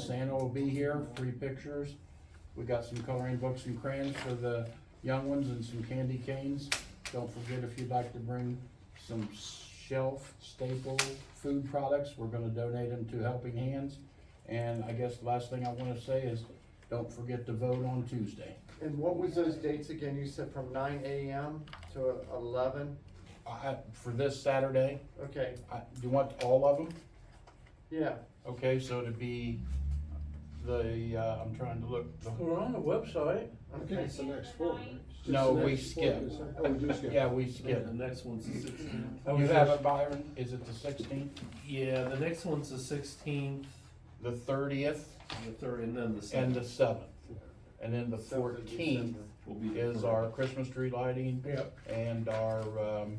Santa will be here, free pictures. We got some coloring books and crayons for the young ones and some candy canes. Don't forget if you'd like to bring some shelf staple food products, we're gonna donate them to Helping Hands. And I guess the last thing I wanna say is, don't forget to vote on Tuesday. And what was those dates again? You said from nine AM to eleven? I, for this Saturday, Okay, I, do you want all of them? yeah, Okay, so it'd be the, uh, I'm trying to look, the- We're on the website. okay. the next four. No, we skip. Oh, we do skip. yeah, we Yeah, skipped. the next one's the sixteenth. You have it, Byron, is it the sixteenth, Yeah, the next one's the sixteenth, the thirtieth, the third, and then the and the seventh seventh? And then the Seventh of fourteenth December. will be. the is third. our Christmas tree lighting Yep. and our, um,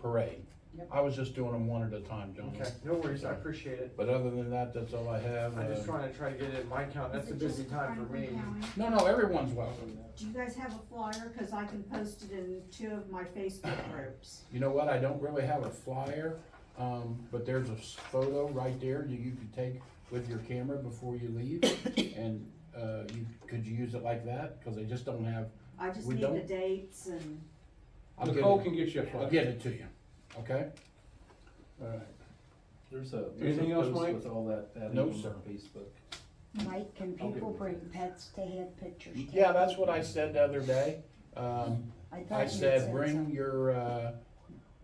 parade. Yep. I was just doing them one at a time, John. Okay, no worries, I appreciate it. But other than that, that's all I have. I'm just Uh, trying to try to get it in my count. That's a busy time for me. No, no, everyone's welcome. Do you guys have a flyer? Cause I can post it in two of my Facebook groups. You know what, I don't really have a flyer, um, but there's a s- photo right there that you could take with your camera before you leave. And, uh, you, could you use it like that? Cause I just don't have, I just We need the don't- dates and, I'll get Nicole it, can get you a I'll flyer. get it to you, okay? Alright. There's a. there's a Anything else, post Mike? With all that, that No, on sir. Facebook. Mike, can I'll get people one. bring pets to have pictures taken? Yeah, that's what I said the other day. Um, thought I you said, bring something. your, uh,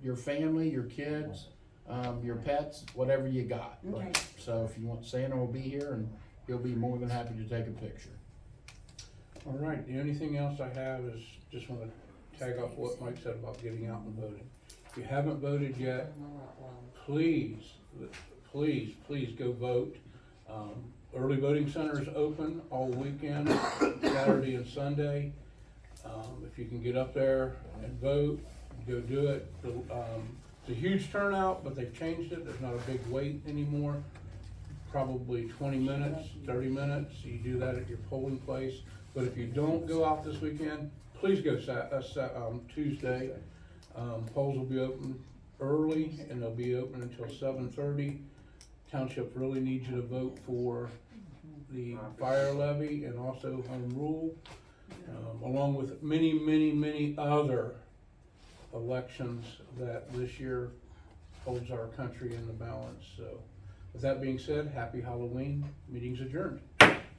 your family, your kids, um, your pets, whatever you got. Okay. So if you want, Santa will be here and he'll be more than happy to take a picture. Alright, the only thing else I have is, just wanna tag off what Mike said about getting out and voting. If you haven't voted yet, please, please, please go vote. Um, Early voting center is open all weekend, Saturday and Sunday. Um, if you can get up there and vote, go do it. The, um, It's a huge turnout, but they've changed it, there's not a big wait anymore. Probably twenty minutes, thirty minutes, you do that at your polling place. But if you don't go out this weekend, please go Sa- uh, Sa- um, Tuesday. Um, polls will be open early and they'll be open until seven thirty. Township really needs you to vote for the fire levy and also home rule, um, along with many, many, many other elections that this year holds our country in the balance, so. With that being said, happy Halloween, meeting's adjourned.